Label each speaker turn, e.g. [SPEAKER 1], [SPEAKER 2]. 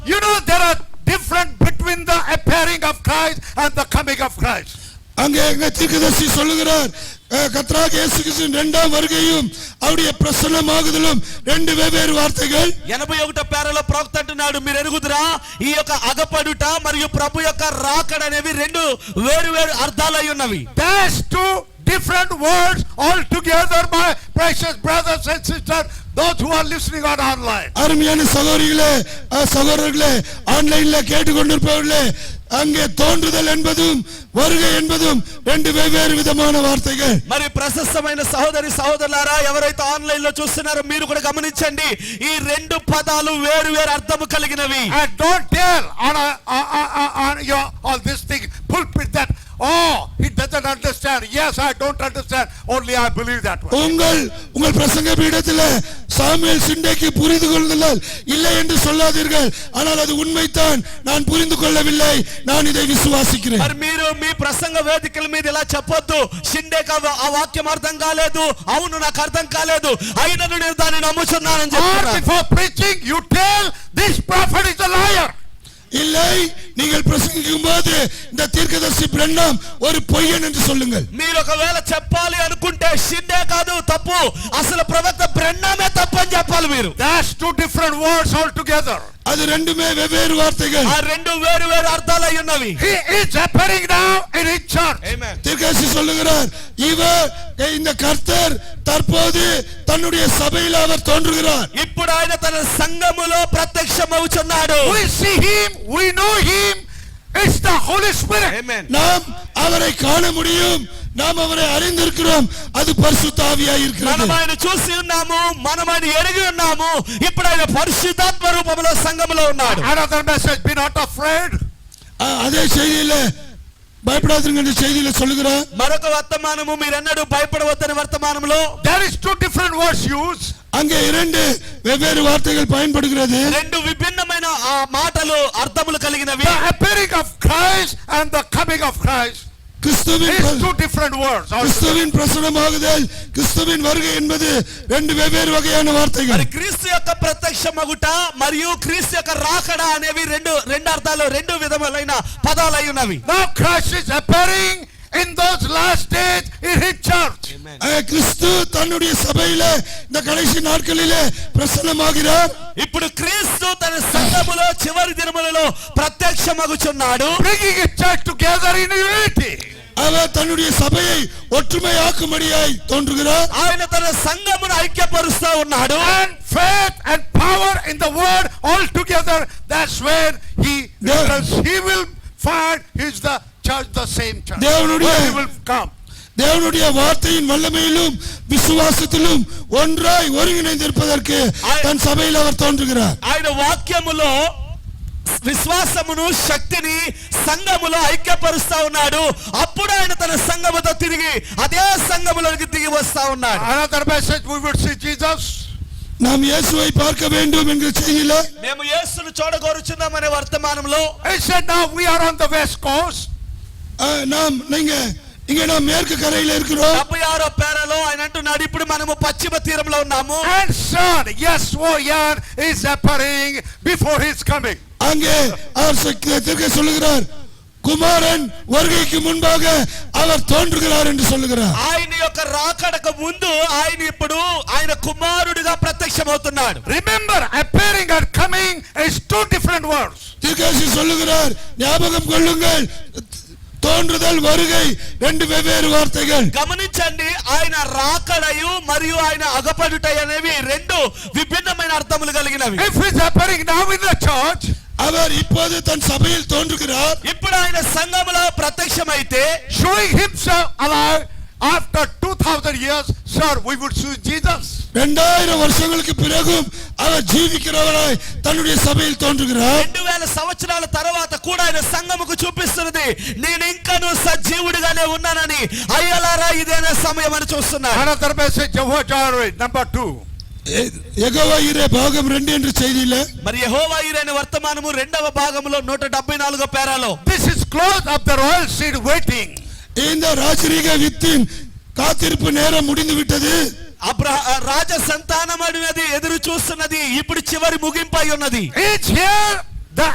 [SPEAKER 1] Christ and the coming of Christ.
[SPEAKER 2] அங்கே எங்க தீர்க்கதரிசி சொல்லுகிறார் அஹ், கர்த்தராகிய இயேசு கிறிஸ்துவின் இரண்டாம் வருகையும் அவருடைய பிரசன்னமாகுதலும் ரெண்டு வெவ்வேறு வார்த்தைகள்
[SPEAKER 3] ఎనభై ఒకటో పేరలో ప్రవక్త అంటున్నాడు మీరు ఎరుగుదురా ఈ యొక్క అగపడుట మరియు ప్రభు యొక్క రాకడ అనేవి రెండు వేరు వేరు అర్థాలు అయి ఉన్నవి
[SPEAKER 1] There's two different words altogether, my precious brothers and sisters, those who are listening on online.
[SPEAKER 2] அருமையான சகோதரிகளே அஹ், சகோதரர்களே ஆன்லைன்ல கேட்டுக்கொண்டிருப்பவர்களே அங்கே தோன்றுதல் என்பதும் வருகை என்பதும் ரெண்டு வெவ்வேறு விதமான வார்த்தைகள்
[SPEAKER 3] మరి ప్రశస్తమైన సహోదరి సహోదరులారా ఎవరైతే ఆన్లైన్ లో చూస్తున్నారో మీరు కూడా గమనించండి ఈ రెండు పదాలు వేరు వేరు అర్థము కలిగినవి
[SPEAKER 1] And don't tell on, uh, a, on, on- on your, all this thing, pulpit that, oh, he doesn't understand. Yes, I don't understand. Only I believe that one.
[SPEAKER 2] உங்கள் உங்கள் பிரசங்க பீடத்தில் சாமுவேல் சிண்டைக்கு புரிந்து கொள்ளுதல் இல்லை என்று சொல்லாதீர்கள் ஆனால் அது உண்மைதான் நான் புரிந்து கொள்ளவில்லை நான் இதை விசுவாசிக்கிறேன்
[SPEAKER 3] మరి మీరు మీ ప్రసంగ వేదికల మీద ఇలా చెప్పొద్దు షిండే కాదు ఆ వాక్యం అర్థం కాలేదు అవును నాకు అర్థం కాలేదు అయినను నేను దాన్ని నమ్ముచున్నానని
[SPEAKER 1] Or
[SPEAKER 3] చెప్తున్నాను
[SPEAKER 1] before preaching, you tell this prophet is a liar.
[SPEAKER 2] இல்லை நீங்கள் பிரசங்கிக்கும் போது இந்த தீர்க்கதரிசி பிரண்ணம் ஒரு பொய்யன் என்று சொல்லுங்கள்
[SPEAKER 3] మీరు ఒకవేళ చెప్పాలి అనుకుంటే షిండే కాదు తప్పు అసలు ప్రవక్త బ్రెన్నామే తప్పు అని చెప్పాలి మీరు
[SPEAKER 1] That's two different words altogether.
[SPEAKER 2] அது ரெண்டுமே வெவ்வேறு வார்த்தைகள்
[SPEAKER 3] ఆ రెండు వేరు వేరు అర్థాలు అయి ఉన్నవి
[SPEAKER 1] He is appearing now in his church.
[SPEAKER 2] தீர்க்கதரிசி சொல்லுகிறார் இவர் இந்த கர்த்தர் தற்போது தன்னுடைய சபையில் அவர் தோன்றுகிறார்
[SPEAKER 3] ఇప్పుడు ఆయన తన సంఘములో ప్రత్యక్షమవుచున్నాడు
[SPEAKER 1] We see him, we know him. It's the Holy Spirit.
[SPEAKER 2] நாம் அவரை காண முடியும் நாம் அவரை அறிந்திருக்கிறோம் அது பரிசுத்த ஆவியாய்
[SPEAKER 3] మనం
[SPEAKER 2] இருக்கிறது
[SPEAKER 3] ఆయన చూసి ఉన్నాము మనం ఆయన ఎరిగి ఉన్నాము ఇప్పుడు ఆయన పరిశుద్ధాత్మ రూపంలో సంఘములో ఉన్నాడు
[SPEAKER 1] Another message, be not afraid.
[SPEAKER 2] அ- அதே செய்தியில பயப்படாதீங்க என்ற செய்தியில சொல்லுகிறார்
[SPEAKER 3] మరొక వర్తమానము మీరెన్నడూ భయపడవద్దని వర్తమానంలో
[SPEAKER 1] There is two different words used.
[SPEAKER 2] அங்கே இரண்டு வெவ்வேறு வார்த்தைகள் பயன்படுகிறது
[SPEAKER 3] రెండు విభిన్నమైన ఆ మాటలు అర్థములు కలిగినవి
[SPEAKER 1] The appearing of Christ and the coming of Christ.
[SPEAKER 2] கிறிஸ்துவின்
[SPEAKER 1] It's
[SPEAKER 2] பிர-
[SPEAKER 1] two different words.
[SPEAKER 2] கிறிஸ்துவின் பிரசுரமாகுதல் கிறிஸ்துவின் வருகை என்பது ரெண்டு வெவ்வேறு வகையான
[SPEAKER 3] మరి
[SPEAKER 2] வார்த்தைகள்
[SPEAKER 3] క్రీస్తు యొక్క ప్రత్యక్షమగుట మరియు క్రీస్తు యొక్క రాకడ అనేవి రెండు రెండు అర్థాలు రెండు విధములైన పదాలు అయి ఉన్నవి
[SPEAKER 1] Now Christ is appearing in those last days in his church.
[SPEAKER 2] அ, கிறிஸ்து தன்னுடைய சபையில இந்த கடைசி நாட்களிலே பிரசன்னமாகிறார்
[SPEAKER 3] ఇప్పుడు క్రీస్తు తన సంఘములో చివరి దినములలో ప్రత్యక్షమగుచున్నాడు
[SPEAKER 1] Bringing his church together in unity.
[SPEAKER 2] அவர் తன்னுடைய சபையை ஒற்றுமையாக்கும்படியாய் தோன்றுகிறார்
[SPEAKER 3] ఆయన తన సంఘమును ఐక్యపరుస్తూ ఉన్నాడు
[SPEAKER 1] And faith and power in the word all together. That's when he,
[SPEAKER 2] Yeah.
[SPEAKER 1] because he will find he's the church, the same church.
[SPEAKER 2] தேவனுடைய-
[SPEAKER 1] Where he will come.
[SPEAKER 2] தேவனுடைய வார்த்தையின் வல்லமையிலும் விசுவாசத்திலும் ஒன்றாய் ஒருங்கிணைந்திருப்பதற்கு தன் சபையில் அவர் தோன்றுகிறார்
[SPEAKER 3] ఆయన వాక్యములో విశ్వాసమును శక్తిని సంఘములో ఐక్యపరుస్తా ఉన్నాడు అప్పుడు ఆయన తన సంఘముతో తిరిగి అదే సంఘములోకి దిగి వస్తా ఉన్నాడు
[SPEAKER 1] Another message, we will see Jesus.
[SPEAKER 2] நாம் இயேசுவை பார்க்க வேண்டும் என்கிற செய்தியில
[SPEAKER 3] మేము యేసును చూడగోరుచున్నామనే వర్తమానంలో
[SPEAKER 1] He said, now we are on the west coast.
[SPEAKER 2] அஹ், நாம் நீங்க இங்க நாம் மேற்கு கரையில இருக்கிறோம்
[SPEAKER 3] డెబ్బై ఆరో పేరలో ఆయన అంటున్నాడు ఇప్పుడు మనము పశ్చిమ తీరంలో ఉన్నాము
[SPEAKER 1] And son, yes, oh, yeah, is appearing before his coming.
[SPEAKER 2] அங்கே அவர் சொ- திருக்க சொல்லுகிறார் குமாரன் வருகைக்கு முன்பாக அவர் தோன்றுகிறார் என்று சொல்லுகிறார்
[SPEAKER 3] ఆయన యొక్క రాకడకు ముందు ఆయన ఇప్పుడు ఆయన కుమారుడిగా ప్రత్యక్షమవుతున్నాడు
[SPEAKER 1] Remember, appearing and coming is two different words.
[SPEAKER 2] திருக்கேசி சொல்லுகிறார் ஞாபகம் கொள்ளுங்கள் தோன்றுதல் வருகை ரெண்டு வெவ்வேறு வார்த்தைகள்
[SPEAKER 3] గమనించండి ఆయన రాకడయు మరియు ఆయన అగపడుట అనేవి రెండు విభిన్నమైన అర్థములు కలిగినవి
[SPEAKER 1] If he's appearing now in the church,
[SPEAKER 2] அவர் இப்போது தன் சபையில் தோன்றுகிறார்
[SPEAKER 3] ఇప్పుడు ఆయన సంఘములో ప్రత్యక్షమైతే
[SPEAKER 1] showing himself alive after 2000 years sir we would see jesus
[SPEAKER 2] இரண்டாயிரம் வருஷங்களுக்கு பிறகும் அவர் ஜீவிக்கிறவராய் தன்னுடைய சபையில் தோன்றுகிறார்
[SPEAKER 3] రెండు వేల సంవత్సరాల తర్వాత కూడా ఆయన సంఘముకు చూపిస్తున్నది నేను ఇంకను సజీవుడిగానే ఉన్నానని అయ్యలారా ఇదేనా సమయం అని చూస్తున్నాను
[SPEAKER 1] another message jehovah jireh number 2
[SPEAKER 2] எகவா இரே பாகம் ரெண்டு என்று செய்தியில
[SPEAKER 3] మరి యెహోవా యిరైన వర్తమానము రెండవ భాగంలో నూట డెబ్బై నాలుగో పేరాలో
[SPEAKER 1] this is close of the royal seed waiting
[SPEAKER 2] இந்த ராஜரீக வித்தின் காத்திருப்பு நேரம் முடிந்து விட்டது
[SPEAKER 3] అబ్రహ రాజ సంతానం అడినది ఎదురు చూస్తున్నది ఇప్పుడు చివరి ముగింపై ఉన్నది
[SPEAKER 1] each year